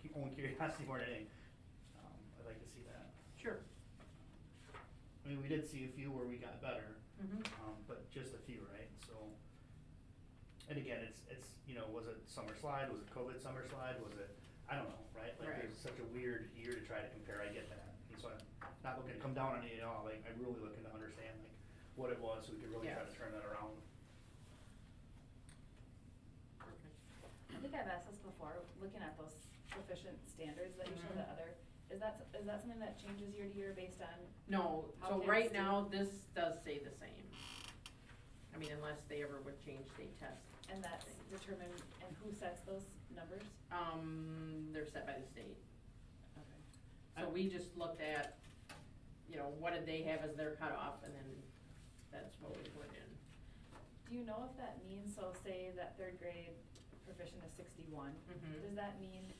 cu- own curiosity more than anything. Um, I'd like to see that. Sure. I mean, we did see a few where we got better, Mhm. um, but just a few, right? So, and again, it's, it's, you know, was it summer slide, was it COVID summer slide, was it, I don't know, right? Like, Right. there's such a weird year to try to compare, I get that. And so I'm not looking to come down on it at all, like, I'm really looking to understand, like, what it was, so we could really try Yeah. to turn that around. I think I've asked this before, looking at those proficient standards that you show the Mhm. other, is that, is that something that changes year to year based on? No, How so kids right do- now, this does say the same. I mean, unless they ever would change the test. And that's thing. determined, and who sets those numbers? Um, they're set by the state. Okay. So we just looked at, you know, what did they have as their cutoff, and then that's what we put in. Do you know if that means, so say that third grade proficient is sixty-one, Mhm. does that mean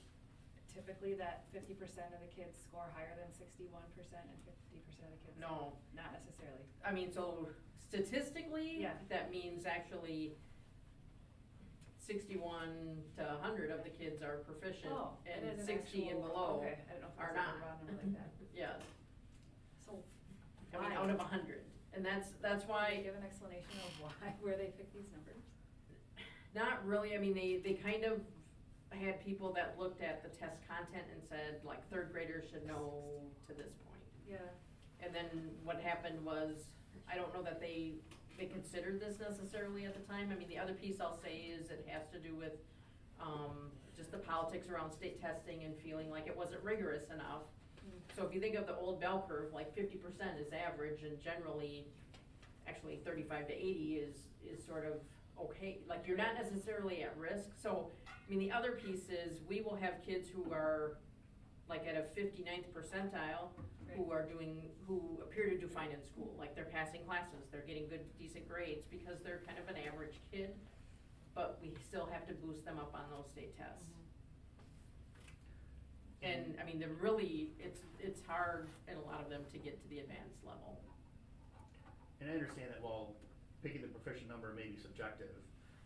typically that fifty percent of the kids score higher than sixty-one percent and fifty percent of the kids? No, Not necessarily. I mean, so statistically, Yeah. that means actually sixty-one to hundred of the kids are proficient, Oh, it and is an sixty and actual- below Okay, I don't know if are it's not. a raw number like that. Yes, So I mean, Why? out of hundred, and that's, that's Can you why, give an explanation of why, where they pick these numbers? not really, I mean, they, they kind of had people that looked at the test content and said, like, third graders should know to this point. Yeah. And then what happened was, I don't know that they, they considered this necessarily at the time. I mean, the other piece I'll say is it has to do with, um, just the politics around state testing and feeling like it wasn't rigorous enough. So if you think of the old bell curve, like fifty percent is average and generally, actually thirty-five to eighty is, is sort of okay. Like, you're not necessarily at risk. So, I mean, the other piece is, we will have kids who are, like, at a 59th percentile, who are doing, who appear to do fine in school, like they're passing classes, they're getting good, decent grades, because they're kind of an average kid, but we still have to boost them up on those state tests. Mm-hmm. And, I mean, they're really, it's, it's hard in a lot of them to get to the advanced level. And I understand that while picking the proficient number may be subjective,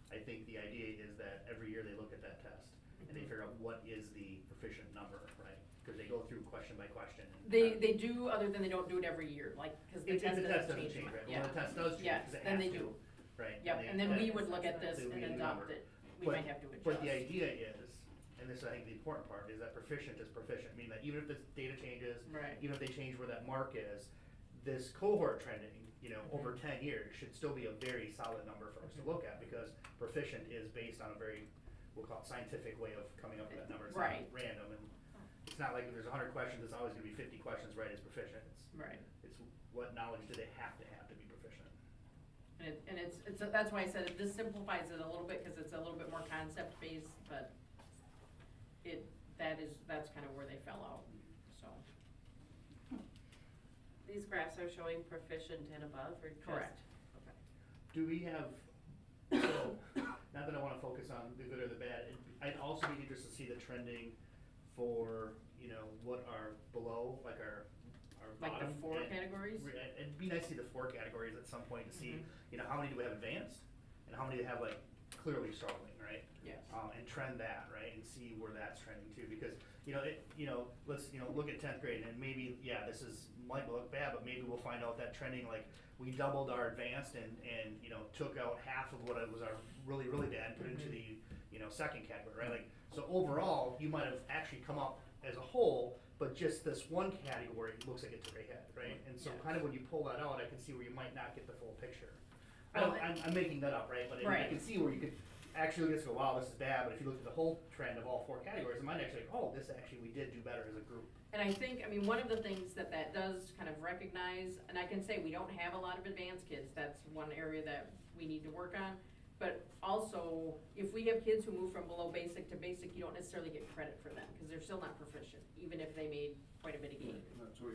I think the idea is that every year they look at that test and they Mhm. figure out what is the proficient number, right? Because they go through question by question. and- They, they do, other than they don't do it every year, like, cause the If, if test the test doesn't doesn't change. change, right, Yeah, well, the test does change, Yes, 'cause it then has they to, do. right? Yep, they- and then we that- would look at this so we and need a adopt number. it, we But- might have to adjust. But the idea is, and this I think the important part, is that proficient is proficient, meaning that even if the data changes, Right. even if they change where that mark is, this cohort trending, you know, over ten years should still be a very solid number for us to look at because proficient is based on a very, we'll call it scientific way of coming up with that number. It's not Right. Random and it's not like if there's hundred questions, it's always gonna be fifty questions right as proficient. It's, Right. it's what knowledge do they have to have to be proficient? And it, and it's, it's, that's why I said it, this simplifies it a little bit, cause it's a little bit more concept based, but it, that is, that's kind of where they fell out, so. These graphs are showing proficient and above or just? Correct. Okay. Do we have, so, not that I wanna focus on the good or the bad, it'd be- I'd also be interested to see the trending for, you know, what are below, like our, our Like bottom the four and- categories? Re- it- It'd be nice to see the four categories at some point to see, Mhm. you know, how many do we have advanced? And how many do we have like clearly struggling, right? Yes. Um, and trend that, right, and see where that's trending too, because, you know, it, you know, let's, you know, look at tenth grade and maybe, yeah, this is, might look bad, but maybe we'll find out that trending, like, we doubled our advanced and, and, you know, took out half of what it was our really, really bad and put into Mhm. the, you know, second category, right? Like, so overall, you might have actually come up as a whole, but just this one category looks like it's way ahead, right? And so Yeah. kind of when you pull that out, I can see where you might not get the full picture. I Well, don't, I'm, I'm making that up, right? But I- I Right. can see where you could actually look at this and go, wow, this is bad, but if you look at the whole trend of all four categories, it might actually, oh, this actually, we did do better as a group. And I think, I mean, one of the things that that does kind of recognize, and I can say we don't have a lot of advanced kids, that's one area that we need to work on. But also, if we have kids who move from below basic to basic, you don't necessarily get credit for them, cause they're still not proficient, even if they made quite a bit of gain.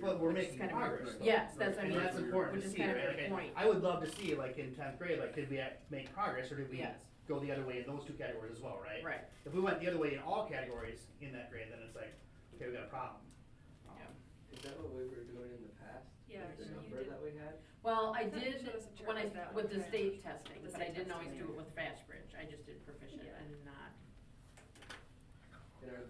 But we're Which is making kind of weird. progress, though. Yes, that's, I And mean, that's important which to is see, kind of right? the Like, I- point. I would love to see, like, in tenth grade, like, did we act- make progress, or did we Yes. go the other way in those two categories as well, right? Right. If we went the other way in all categories in that grade, then it's like, okay, we got a problem. Um, Yeah. Is that what we were doing in the past? Yeah, Like The you number did. that we had? Well, I I thought you did, showed us a chart when I, with that with one, the right? state testing, The but I state didn't testing, always do yeah. it with fast bridge, I just did proficient Yeah. and not. And are